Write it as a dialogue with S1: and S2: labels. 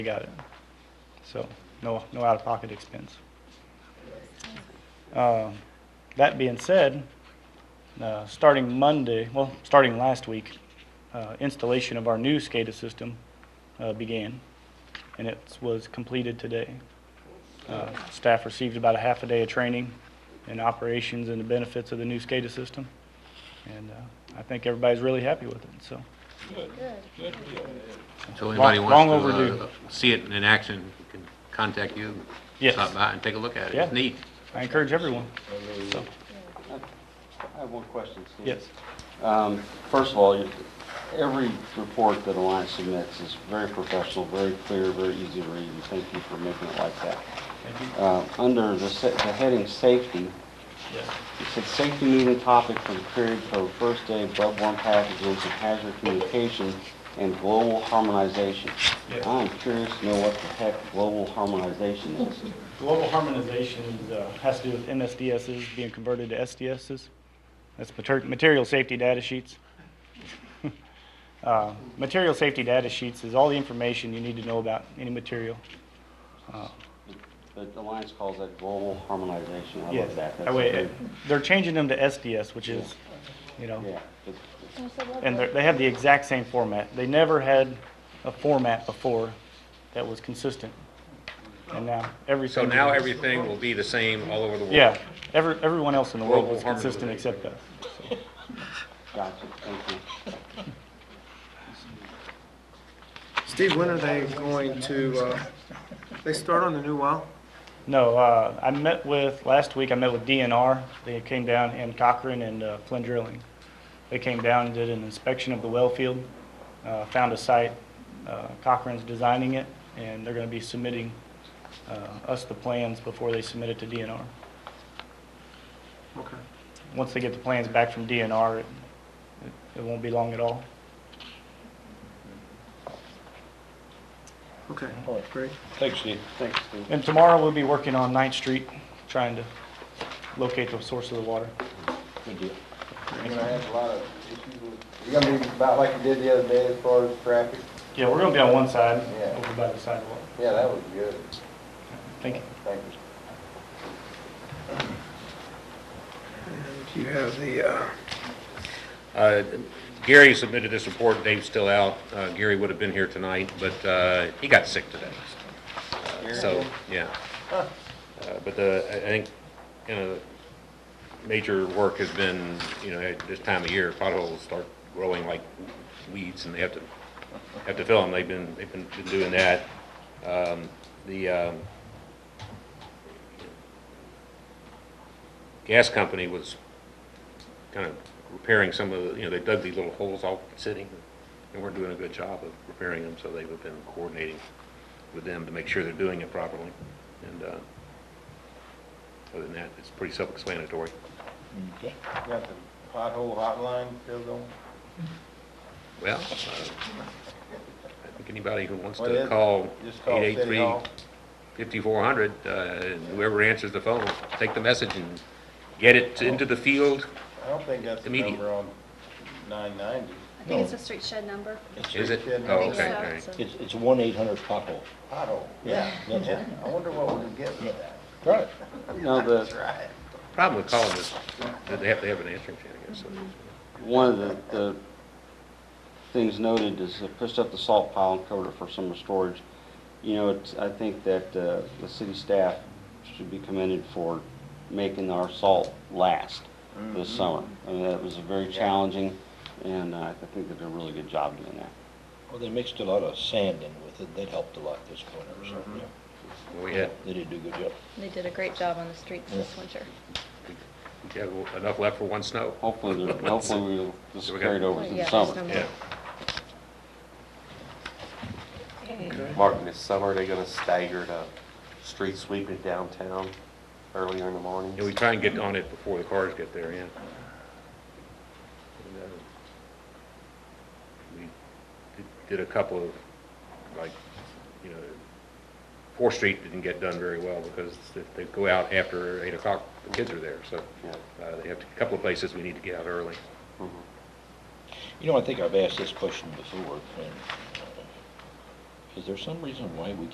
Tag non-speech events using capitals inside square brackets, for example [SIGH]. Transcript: S1: They got it. So, no, no out-of-pocket expense. Uh, That being said, uh, starting Monday, well, starting last week, uh, installation of our new SCADA system uh, began, and it was completed today. Uh, Staff received about a half a day of training in operations and the benefits of the new SCADA system, and uh, I think everybody's really happy with it, so.
S2: So anybody
S1: Long- long
S2: wants to uh,
S1: overdue.
S2: see it in action, you can contact you.
S1: Yes.
S2: Stop by and take a look at it.
S1: Yeah.
S2: It's neat.
S1: I encourage everyone, so,
S3: I have one question, Steve.
S1: yes.
S3: Um, First of all, you- every report that Alliance submits is very professional, very clear, very easy to read, and thank you for making it like that.
S1: Thank you.
S3: Uh, Under the se- the heading "Safety,"
S1: Yes.
S3: it said, "Safety meeting topic for the period for first aid, bloodborne pathogens, and hazard communication and global harmonization."
S1: Yeah.
S3: I'm curious to know what the heck global harmonization is.
S1: Global harmonization uh, has to do with MSDSs being converted to SDSs. That's mater- material safety data sheets. [LAUGHS] Uh, Material safety data sheets is all the information you need to know about any material.
S3: But Alliance calls that global harmonization. I
S1: Yes,
S3: love that.
S1: That
S3: That's
S1: way,
S3: a
S1: uh, they're changing them to SDS, which is, you know,
S3: big- Yeah. It's-
S1: And they're- they have the exact same format. They never had a format before that was consistent. And now every.
S2: So now everything will be the same all over the world.
S1: Yeah, every, everyone else in the world
S2: Global
S1: was consistent
S2: harmonization.
S1: except us.
S3: Gotcha, thank you.
S4: Steve, when are they going to, uh, they start on the new well?
S1: No, uh, I met with, last week I met with DNR. They came down and Cochran and uh, Flynn Drilling. They came down and did an inspection of the well field, uh, found a site. Uh, Cochran's designing it and they're going to be submitting, uh, us the plans before they submit it to DNR.
S4: Okay.
S1: Once they get the plans back from DNR, it, it won't be long at all.
S4: Okay, great.
S3: Thanks, Steve. Thanks, Steve.
S1: And tomorrow we'll be working on Ninth Street, trying to locate the source of the water.
S3: Good deal.
S5: You're gonna have a lot of issues with, you're gonna be about like you did the other day as far as traffic?
S1: Yeah, we're gonna be on one side,
S5: Yeah.
S1: over by the sidewalk.
S5: Yeah, that would be good.
S1: Thank you.
S5: Thank you.
S4: You have the, uh,
S2: Uh, Gary submitted this report, Dave's still out. Uh, Gary would have been here tonight, but uh, he got sick today. Uh, So, yeah. Uh, But the, I I think, you know, major work has been, you know, at this time of year, potholes start growing like weeds and they have to, have to fill them. They've been, they've been been doing that. Um, The, um, gas company was kind of repairing some of the, you know, they dug these little holes all sitting, and weren't doing a good job of repairing them, so they've been coordinating with them to make sure they're doing it properly. And, uh, other than that, it's pretty self-explanatory.
S5: Got the pothole hotline still going?
S2: Well, uh, I think anybody who wants
S5: What
S2: to
S5: is it?
S2: call
S5: Just call City Hall?
S2: 883-5400, uh, and whoever answers the phone, take the message and get it into the field.
S5: I don't think that's the
S2: Immediate.
S5: number on nine ninety.
S6: I think it's a street shed number.
S2: Is it?
S5: Shouldn't
S2: Oh,
S5: be
S2: okay,
S6: so.
S2: all right.
S7: It's, it's one eight hundred pothole.
S5: Pothole, yeah,
S7: that's
S5: yeah. I wonder what we could get for that.
S7: Right.
S3: Now,
S5: That's
S3: the,
S5: [LAUGHS] right.
S2: Problem with calling is that they have to have an answering machine, I guess. so-
S3: one of the, the things noted is they pushed up the salt pile and covered it for summer storage. You know, it's, I think that, uh, the city staff should be commended for making our salt last this summer. I mean, that was very challenging, and uh, I think they did a really good job doing that.
S7: Well, they mixed a lot of sand in with it, that helped a lot this winter,
S5: Mm-hmm.
S7: so, yeah.
S2: We had,
S7: They did do a good job.
S8: They did a great job on the streets this winter.
S2: Do you have enough left for one snow?
S3: Hopefully,
S9: [LAUGHS]
S3: they're- hopefully we'll just carry it over to the
S8: Yeah,
S3: summer.
S8: there's no
S2: Yeah.
S8: more.
S9: Martin, this summer, they're gonna stagger the street sweeping downtown earlier in the morning.
S2: Yeah, we try and get on it before the cars get there, yeah. We did- did a couple of, like, you know, Fourth Street didn't get done very well because if they go out after eight o'clock, the kids are there, so
S9: Yeah.
S2: uh, they have to- a couple of places we need to get out early.
S7: You know, I think I've asked this question before, and uh, Is there some reason why we